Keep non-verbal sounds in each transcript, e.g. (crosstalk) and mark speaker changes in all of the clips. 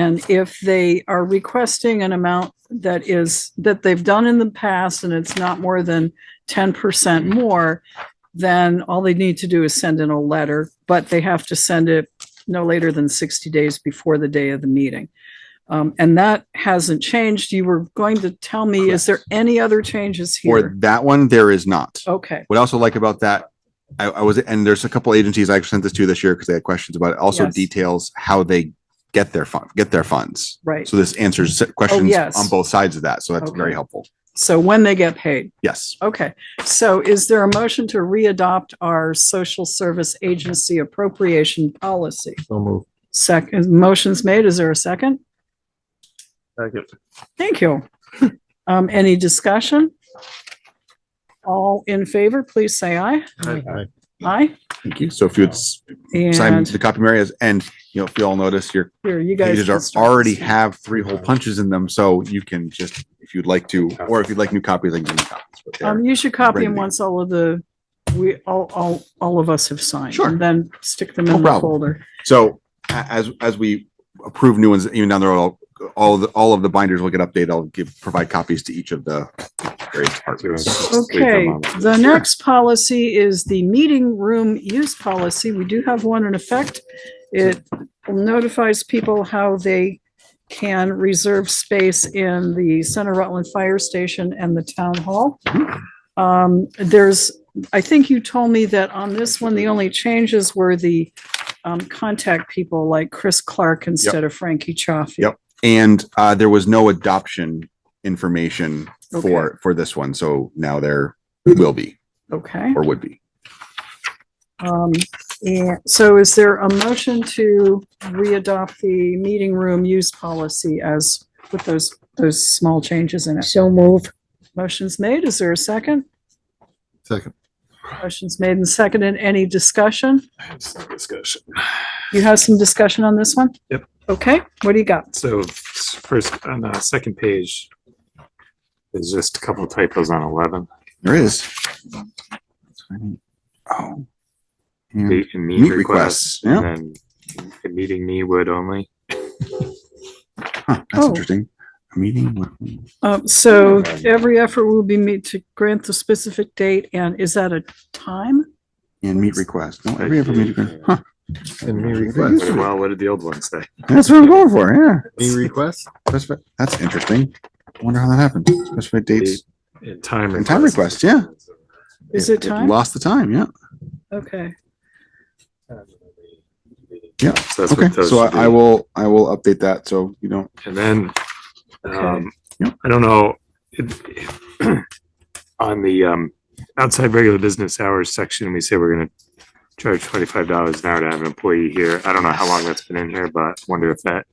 Speaker 1: And if they are requesting an amount that is, that they've done in the past and it's not more than ten percent more, then all they need to do is send in a letter, but they have to send it no later than sixty days before the day of the meeting. Um, and that hasn't changed. You were going to tell me, is there any other changes
Speaker 2: For
Speaker 1: here?
Speaker 2: that one, there is not.
Speaker 1: Okay,
Speaker 2: What I also like about that, I, I was, and there's a couple agencies I sent this to this year because they had questions about it. Also
Speaker 1: Yes.
Speaker 2: details how they get their fund, get their funds.
Speaker 1: right.
Speaker 2: So this answers questions
Speaker 1: Oh, yes.
Speaker 2: on both sides of that. So that's
Speaker 1: Okay.
Speaker 2: very helpful.
Speaker 1: So when they get paid.
Speaker 2: Yes.
Speaker 1: Okay, so is there a motion to readopt our social service agency appropriation policy?
Speaker 3: So move.
Speaker 1: Second, motion's made. Is there a second?
Speaker 3: Second.
Speaker 1: Thank you. (laughs) Um, any discussion? All in favor, please say aye. Aye.
Speaker 2: Thank you. So if you would s- sign
Speaker 1: And
Speaker 2: the copy, Mary, as- and you know, if you all notice, your
Speaker 1: here, you guys.
Speaker 2: pages
Speaker 1: can
Speaker 2: are
Speaker 1: start
Speaker 2: already
Speaker 1: this.
Speaker 2: have three whole punches in them. So you can just, if you'd like to, or if you'd like new copies, I can give you copies. but they're-
Speaker 1: Um, you should copy them
Speaker 2: ready.
Speaker 1: once all of the, we, all, all, all of us have signed.
Speaker 2: Sure.
Speaker 1: And then stick them
Speaker 2: No
Speaker 1: in the
Speaker 2: problem.
Speaker 1: folder.
Speaker 2: So a- as, as we approve new ones, even down the road, I'll- all, the- all of the binders will get updated. I'll give, provide copies to each of the various departments.
Speaker 1: Okay, the next policy is the meeting room use policy. We do have one in effect. It notifies people how they can reserve space in the Center Rutland Fire Station and the Town Hall. Um, there's, I think you told me that on this one, the only changes were the um, contact people like Chris Clark instead of Frankie Chaffee.
Speaker 2: Yep. And uh, there was no adoption information
Speaker 1: Okay.
Speaker 2: for, for this one. So now there will be
Speaker 1: Okay.
Speaker 2: or would be.
Speaker 1: Um, and so is there a motion to readopt the meeting room use policy as with those, those small changes in it?
Speaker 4: So move.
Speaker 1: Motion's made. Is there a second?
Speaker 3: Second.
Speaker 1: Motion's made and seconded. Any discussion?
Speaker 3: Discussion.
Speaker 1: You have some discussion on this one?
Speaker 3: Yep.
Speaker 1: Okay, what do you got?
Speaker 5: So first, on the second page, there's just a couple typos on eleven.
Speaker 2: There is. Oh. And-
Speaker 5: Meet and meet
Speaker 2: Meet requests,
Speaker 5: requests, and then the meeting me would only.
Speaker 2: huh, That's
Speaker 1: Oh.
Speaker 2: interesting. A meeting. with-
Speaker 1: Um, so every effort will be made to grant the specific date and is that a time?
Speaker 2: And meet request. No, every other meeting. Huh,
Speaker 3: And me
Speaker 2: request.
Speaker 3: request.
Speaker 5: Well, what did the old one say?
Speaker 2: That's what I'm going for. Yeah.
Speaker 3: (laughs) Me request?
Speaker 2: That's, that's interesting. I Wonder how that happened. Specified dates.
Speaker 5: And time.
Speaker 2: And time
Speaker 5: requests.
Speaker 1: Is it time?
Speaker 2: Lost the time. Yeah.
Speaker 1: Okay,
Speaker 2: Yeah,
Speaker 5: So that's
Speaker 2: Okay.
Speaker 5: what those
Speaker 2: So
Speaker 5: should
Speaker 2: I, I
Speaker 5: be.
Speaker 2: will, I will update that. So you don't,
Speaker 5: And then,
Speaker 1: Okay.
Speaker 5: um,
Speaker 2: Yep.
Speaker 5: I don't know. it- (clears throat) On the, um, outside regular business hours section, we say we're gonna charge twenty-five dollars an hour to have an employee here. I don't know how long that's been in here, but wonder if that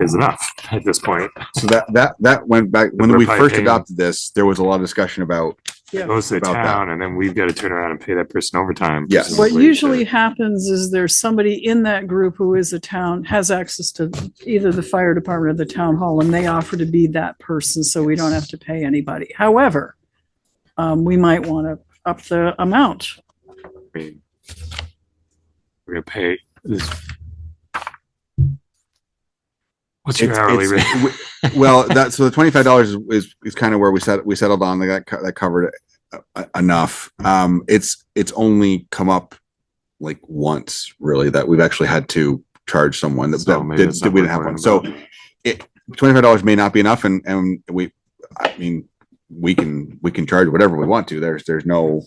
Speaker 5: is enough at this point.
Speaker 2: so that, that, that went back, when we
Speaker 5: We're
Speaker 2: first
Speaker 5: paying-
Speaker 2: adopted this, there was a lot of discussion about,
Speaker 1: yeah.
Speaker 5: Goes to the
Speaker 2: About that.
Speaker 5: town and then we've got to turn around and pay that person overtime.
Speaker 2: Yes.
Speaker 1: What
Speaker 5: presumably, to-
Speaker 1: usually happens is there's somebody in that group who is a town, has access to either the fire department or the town hall, and they offer to be that person, so we don't have to pay anybody. However, um, we might want to up the amount.
Speaker 5: I mean, We're gonna pay this. What's your
Speaker 2: It's-
Speaker 5: hourly
Speaker 2: it's-
Speaker 5: rate?
Speaker 2: we- Well, that, so the twenty-five dollars is, is kind of where we set, we settled on, like that, co- that covered uh, uh, enough. Um, it's, it's only come up like once really that we've actually had to charge someone that,
Speaker 5: So
Speaker 2: that
Speaker 5: maybe
Speaker 2: did-
Speaker 5: it's
Speaker 2: that
Speaker 5: not
Speaker 2: we didn't
Speaker 5: worth
Speaker 2: have
Speaker 5: worrying
Speaker 2: one. So
Speaker 5: about.
Speaker 2: it, twenty-five dollars may not be enough and, and we, I mean, we can, we can charge whatever we want to. There's, there's no.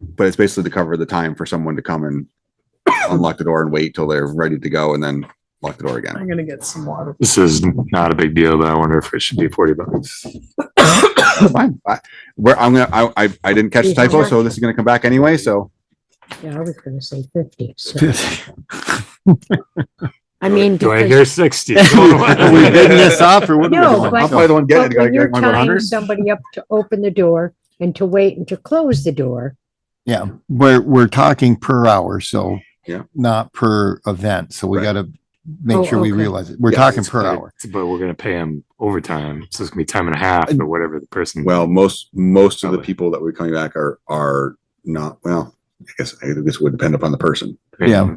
Speaker 2: But it's basically to cover the time for someone to come and unlock the door and wait till they're ready to go and then lock the door again.
Speaker 1: I'm gonna get some water.
Speaker 5: This is not a big deal, but I wonder if it should be forty bucks.
Speaker 2: That's fine. I, where I'm gonna, I, I, I didn't catch the typo, so this is gonna come back anyway, so.
Speaker 4: Yeah, I was gonna say fifty. so- I mean.
Speaker 5: Do I
Speaker 4: because-
Speaker 5: hear sixty? (laughs)
Speaker 3: We bidding this up or what? are we
Speaker 4: No,
Speaker 3: doing?
Speaker 4: but-
Speaker 2: I'll probably the one
Speaker 4: But
Speaker 2: getting it. I
Speaker 4: when you're
Speaker 2: gotta get one
Speaker 4: tying
Speaker 2: hundred.
Speaker 4: somebody up to open the door and to wait and to close the door,
Speaker 3: Yeah, we're, we're talking per hour, so.
Speaker 2: Yeah.
Speaker 3: Not per event, so we
Speaker 2: Right.
Speaker 3: gotta
Speaker 4: Oh,
Speaker 3: make sure we
Speaker 4: okay.
Speaker 3: realize it. We're
Speaker 2: Yeah,
Speaker 3: talking
Speaker 5: It's
Speaker 3: per
Speaker 5: but-
Speaker 3: hour.
Speaker 5: But we're gonna pay him overtime, so it's gonna be time and a half or whatever the person.
Speaker 2: Well, most, most of the
Speaker 5: Probably.
Speaker 2: people that we're coming back are, are not, well, I guess, I guess it would depend upon the person.
Speaker 5: Yeah.